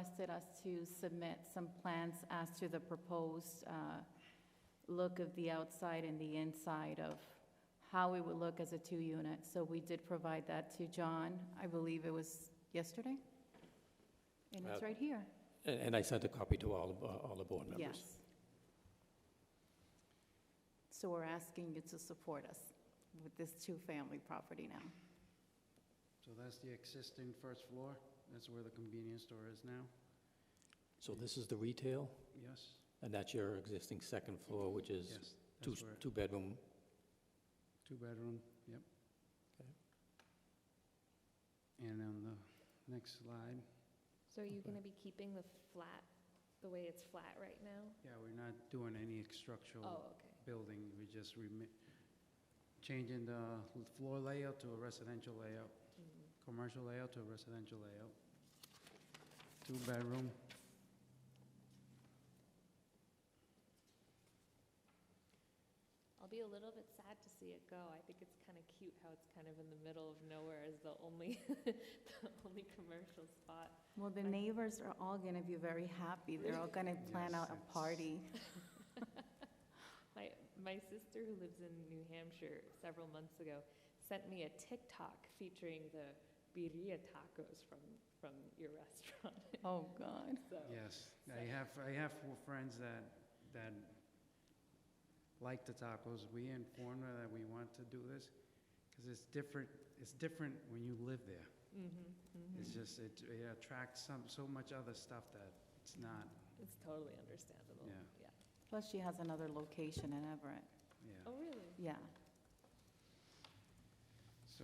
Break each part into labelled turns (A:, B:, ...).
A: requested us to submit some plans as to the proposed uh, look of the outside and the inside of how it would look as a two-unit. So we did provide that to John, I believe it was yesterday? And it's
B: Uh,
A: right here.
B: And and I sent a copy to all, of- uh, all the board members.
A: Yes. So we're asking you to support us with this two-family property now.
C: So that's the existing first floor? That's where the convenience store is now?
B: So this is the retail,
C: Yes?
B: and that's your existing second floor, which is
C: Yes,
B: two,
C: that's where,
B: two-bedroom.
C: two-bedroom, yep.
B: Okay.
C: And on the next slide,
D: So are you
B: Okay.
D: gonna be keeping the flat, the way it's flat right now?
C: yeah, we're not doing any structural
D: Oh, okay.
C: building, we just remi- changing the l- floor layout to a residential layout,
D: Mm.
C: commercial layout to a residential layout. Two-bedroom,
D: I'll be a little bit sad to see it go. I think it's kind of cute how it's kind of in the middle of nowhere as the only, the only commercial spot.
A: Well, the neighbors are all going to be very happy. They're all going to plan
C: Yes,
A: out
C: it's-
A: a party.
D: My, my sister who lives in New Hampshire several months ago sent me a TikTok featuring the birria tacos from, from your restaurant.
A: Oh, God.
D: So,
C: yes. I have, I have four friends that, that like the tacos. We informed her that we want to do this, because it's different, it's different when you live there.
D: mhm, mhm.
C: It's just, it it attracts some, so much other stuff that it's not,
D: It's totally understandable.
C: Yeah.
A: Plus, she has another location in Everett.
C: yeah.
D: Oh, really?
A: Yeah.
C: So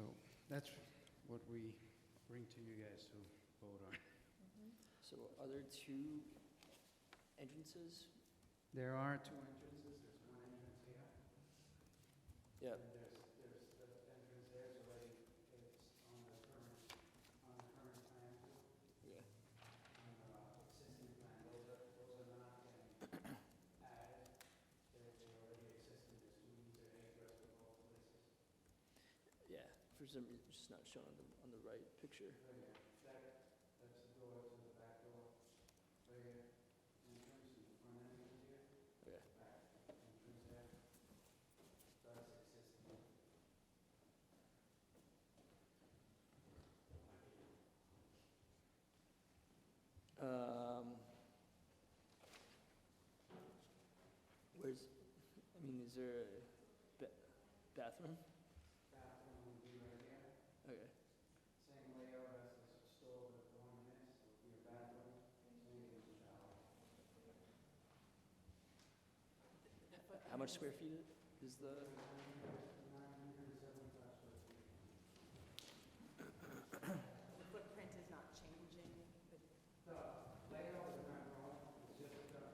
C: that's what we bring to you guys to vote on.
D: Mhm.
E: So are there two entrances?
C: There are two entrances, there's one entrance here.
E: Yeah.
C: And there's, there's, the entrance there is already, it's on the current, on the current plan,
E: Yeah.
C: on the existing plan, those are, those are not getting added. They're, they're already existing, there's two, there's egress from both places.
E: Yeah, for some reason, it's just not shown on the, on the right picture.
C: Right here, that, that's the door to the back door, right here, entrance and the front entrance here.
E: Okay.
C: Back entrance there. That's existing.
E: Um, Where's, I mean, is there a ba- bathroom?
C: Bathroom would be right here.
E: Okay,
C: Same layout as the store with the one in it, so it'll be a bathroom, maybe a shower.
E: how much square feet is the,
A: The footprint is not changing.
C: The layout is not wrong, it's just the,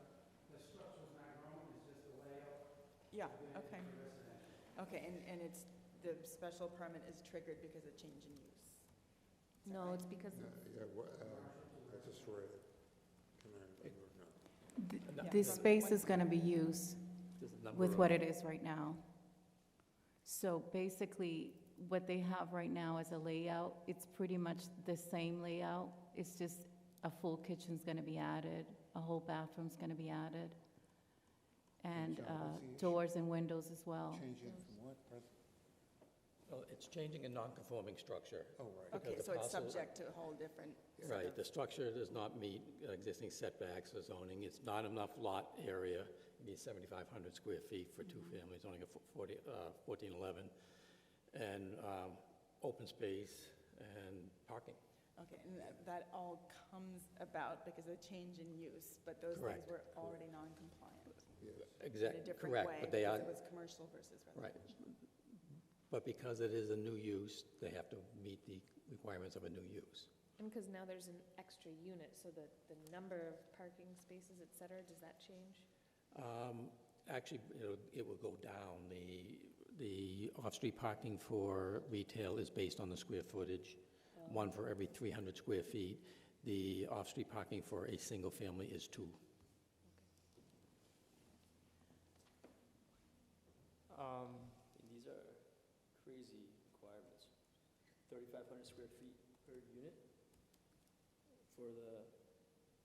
C: the structure's not wrong, it's just the layout.
F: Yeah,
C: Then
F: okay,
C: it's residential.
F: okay, and, and it's, the special permit is triggered because of change in use? Is that
A: No,
F: right?
A: it's because
G: Yeah, wha- uh, I just read it. Can I- I don't know.
B: No,
F: Yeah.
A: this space is going to be used
B: there's a number
A: with
B: of-
A: what it is right now. So basically, what they have right now as a layout, it's pretty much the same layout. It's just a full kitchen's going to be added, a whole bathroom's going to be added, and
G: Michelle,
A: uh,
G: what's the issue?
A: doors and windows as well.
G: Change it from what? Pres-
B: Well, It's changing a non-conforming structure.
G: Oh, right.
B: because
F: Okay,
B: the
F: so it's
B: parcel-
F: subject to a whole different. set
B: Right,
F: of-
B: the structure does not meet existing setbacks or zoning, it's not enough lot area, it needs 7,500 square feet for two
F: Mm-hmm.
B: families, only a fo- 40, uh, 1411, and um, open space and parking.
F: Okay, and that- that all comes about because of change in use, but those things
B: Correct,
F: were already non-compliant in a
B: Exactly,
F: different way.
B: correct, but they are,
F: Because it was commercial versus residential.
B: right. But because it is a new use, they have to meet the requirements of a new use.
D: And because now there's an extra unit, so the, the number of parking spaces, et cetera, does that change?
B: Um, Actually, it'll- it will go down. The, the off-street parking for retail is based on the square footage, one for every 300 square feet. The off-street parking for a single family is two.
E: um, and these are crazy requirements. Thirty-five hundred square feet per unit for the